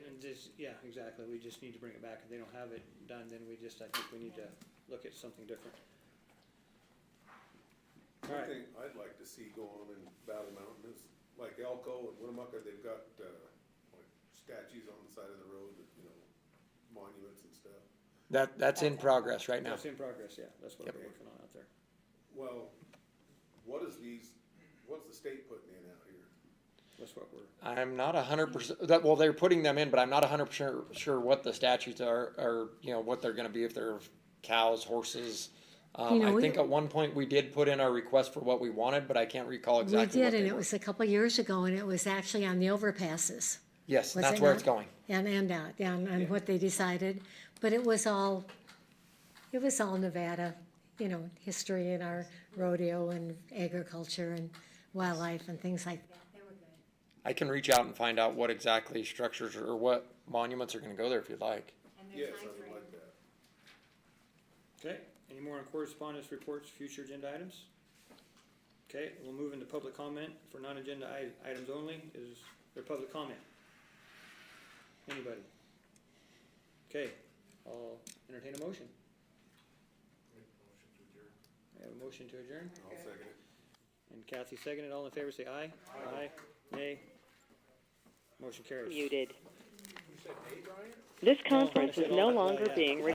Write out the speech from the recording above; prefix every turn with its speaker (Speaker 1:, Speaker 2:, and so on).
Speaker 1: just, yeah, exactly, we just need to bring it back, if they don't have it done, then we just, I think we need to look at something different.
Speaker 2: One
Speaker 1: Alright.
Speaker 2: thing I'd like to see go on in Battle Mountain is, like Elko and Winnemucca, they've got, uh, like statues on the side of the road, that, you know, monuments and stuff.
Speaker 3: That, that's in progress right now.
Speaker 1: That's in progress, yeah, that's what
Speaker 3: Yep.
Speaker 1: we're working on out there.
Speaker 2: Well, what is these, what's the state putting in out here?
Speaker 1: That's what we're,
Speaker 3: I'm not a hundred percent, that, well, they're putting them in, but I'm not a hundred percent sure what the statutes are, or, you know, what they're gonna be, if they're cows, horses. Um,
Speaker 4: You know,
Speaker 3: I
Speaker 4: we-
Speaker 3: think at one point we did put in our request for what we wanted, but I can't recall
Speaker 4: We
Speaker 3: exactly what
Speaker 4: did, and
Speaker 3: they
Speaker 4: it
Speaker 3: were.
Speaker 4: was a couple years ago, and it was actually on the overpasses.
Speaker 3: Yes,
Speaker 4: was
Speaker 3: that's
Speaker 4: it
Speaker 3: where
Speaker 4: not?
Speaker 3: it's going.
Speaker 4: And, and, uh, and, and what they decided, but it was all, it was all Nevada, you know, history and our rodeo and agriculture and wildlife and things like that.
Speaker 3: I can reach out and find out what exactly structures or what monuments are gonna go there if you'd like.
Speaker 2: Yeah, something like that.
Speaker 1: okay, any more on correspondence reports, future agenda items? Okay, we'll move into public comment for non-agenda i- items only, is there public comment? Anybody? Okay, I'll entertain a motion. I have a motion to adjourn,
Speaker 2: I'll second it.
Speaker 1: and Kathy seconded, all in favor say aye. Aye. Nay. Motion carries.
Speaker 5: Muted. This conference is no longer being recorded.